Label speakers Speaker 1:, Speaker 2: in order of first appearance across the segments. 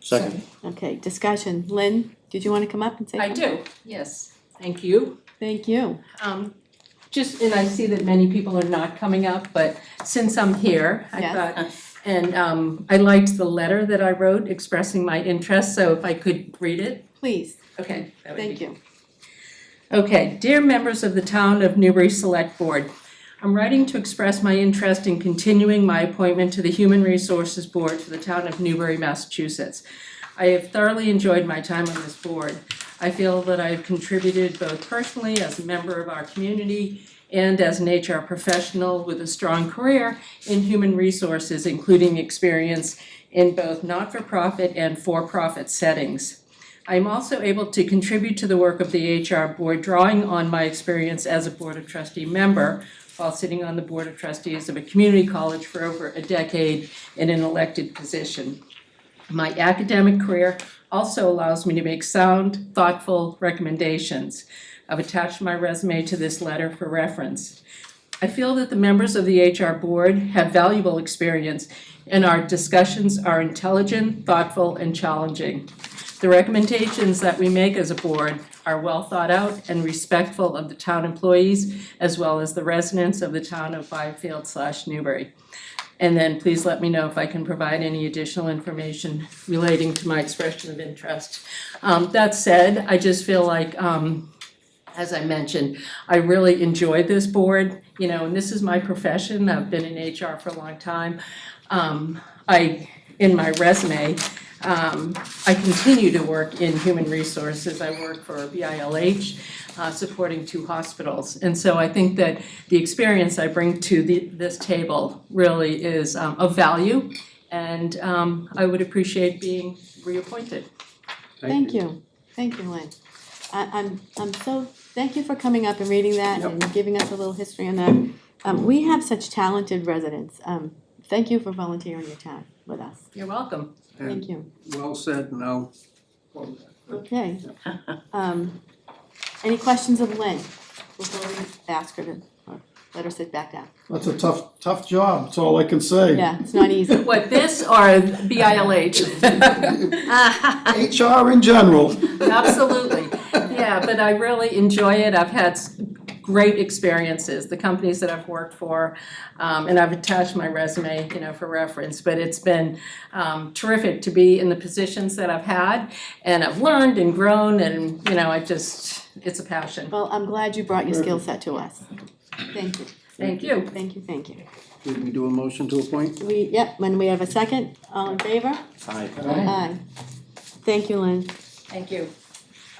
Speaker 1: Second.
Speaker 2: Okay, discussion. Lynn, did you want to come up and say?
Speaker 3: I do,
Speaker 2: something?
Speaker 3: yes, thank you.
Speaker 2: Thank you.
Speaker 3: Um, just, and I see that many people are not coming up, but since I'm here, I
Speaker 2: Yes.
Speaker 3: thought, and, um, I liked the letter that I wrote expressing my interest, so if I could read it,
Speaker 2: Please,
Speaker 3: okay, that would be
Speaker 2: thank you.
Speaker 3: Okay, dear members of the Town of Newbury Select Board, I'm writing to express my interest in continuing my appointment to the Human Resources Board for the Town of Newbury, Massachusetts. I have thoroughly enjoyed my time on this board. I feel that I have contributed both personally as a member of our community and as an HR professional with a strong career in human resources, including experience in both not-for-profit and for-profit settings. I'm also able to contribute to the work of the HR Board, drawing on my experience as a Board of Trustee member while sitting on the Board of Trustees of a community college for over a decade in an elected position. My academic career also allows me to make sound, thoughtful recommendations. I've attached my resume to this letter for reference. I feel that the members of the HR Board have valuable experience, and our discussions are intelligent, thoughtful, and challenging. The recommendations that we make as a board are well thought out and respectful of the town employees as well as the residents of the town of Byfield slash Newbury. And then please let me know if I can provide any additional information relating to my expression of interest. Um, that said, I just feel like, um, as I mentioned, I really enjoyed this board, you know, and this is my profession. I've been in HR for a long time. Um, I, in my resume, um, I continue to work in human resources. I work for BILH, uh, supporting two hospitals. And so I think that the experience I bring to the, this table really is um, of value. And um, I would appreciate being reappointed.
Speaker 2: Thank you. Thank you, Lynn. I, I'm, I'm so, thank you for coming up and reading that and giving us a little history on that. Um, we have such talented residents. Um, thank you for volunteering your time with us.
Speaker 3: You're welcome.
Speaker 2: Thank you.
Speaker 1: Well said, and I'll quote that.
Speaker 2: Okay. Um, any questions of Lynn before we ask her to, or let her sit back down?
Speaker 4: That's a tough, tough job, that's all I can say.
Speaker 2: Yeah, it's not easy.
Speaker 3: What, this or BILH?
Speaker 4: HR in general.
Speaker 3: Absolutely, yeah, but I really enjoy it, I've had s- great experiences, the companies that I've worked for, um, and I've attached my resume, you know, for reference, but it's been, um, terrific to be in the positions that I've had, and I've learned and grown, and, you know, I just, it's a passion.
Speaker 2: Well, I'm glad you brought your skill set to us. Thank you,
Speaker 3: Thank you.
Speaker 2: thank you, thank you.
Speaker 1: Did we do a motion to appoint?
Speaker 2: We, yep, when we have a second, all in favor?
Speaker 1: Aye.
Speaker 2: Aye. Thank you, Lynn.
Speaker 3: Thank you.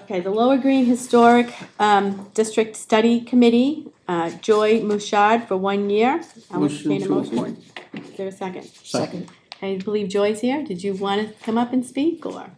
Speaker 2: Okay, the Lower Green Historic um, District Study Committee, uh, Joy Mouchard for one year. I would
Speaker 1: Motion
Speaker 2: entertain a
Speaker 1: to
Speaker 2: motion.
Speaker 1: appoint.
Speaker 2: Is there a second?
Speaker 1: Second.
Speaker 2: I believe Joy's here. Did you want to come up and speak or?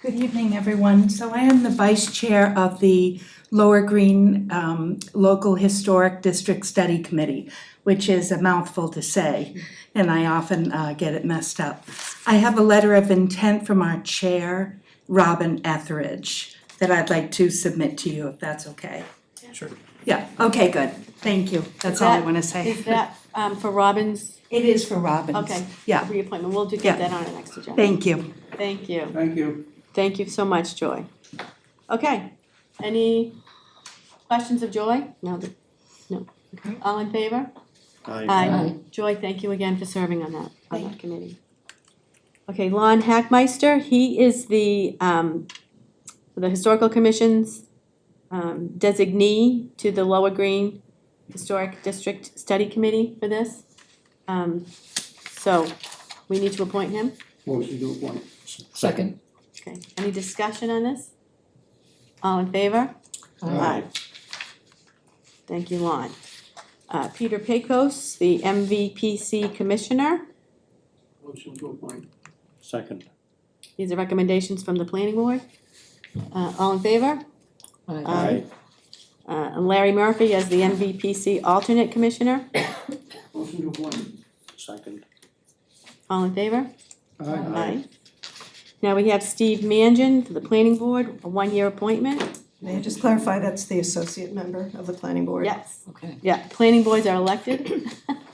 Speaker 5: Good evening, everyone. So I am the vice chair of the Lower Green um, Local Historic District Study Committee, which is a mouthful to say, and I often uh, get it messed up. I have a letter of intent from our chair, Robin Etheridge, that I'd like to submit to you, if that's okay.
Speaker 1: Sure.
Speaker 5: Yeah, okay, good. Thank you. That's all I want to say.
Speaker 2: Is that um, for Robin's
Speaker 5: It is for Robin's.
Speaker 2: Okay.
Speaker 5: Yeah,
Speaker 2: reappointment? We'll do
Speaker 5: Yeah.
Speaker 2: get that on our next agenda.
Speaker 5: thank you.
Speaker 2: Thank you.
Speaker 1: Thank you.
Speaker 2: Thank you so much, Joy. Okay, any questions of Joy? No, th- no. Okay. All in favor? Aye. Joy, thank you again for serving on that, on that committee. Okay, Lon Hackmeister, he is the, um, the Historical Commission's um, designee to the Lower Green Historic District Study Committee for this. Um, so we need to appoint him.
Speaker 1: Motion to appoint.
Speaker 6: Second.
Speaker 2: Okay, any discussion on this? All in favor? Aye. Thank you, Lon. Uh, Peter Pecos, the MVPC Commissioner.
Speaker 1: Motion to appoint.
Speaker 6: Second.
Speaker 2: These are recommendations from the planning board. Uh, all in favor? Aye. Uh, and Larry Murphy as the MVPC alternate commissioner.
Speaker 1: Motion to appoint.
Speaker 6: Second.
Speaker 2: All in favor?
Speaker 1: Aye.
Speaker 2: Now we have Steve Mangan to the planning board, a one-year appointment.
Speaker 7: May I just clarify, that's the associate member of the planning board?
Speaker 2: Yes,
Speaker 3: Okay.
Speaker 2: yeah, planning boards are elected.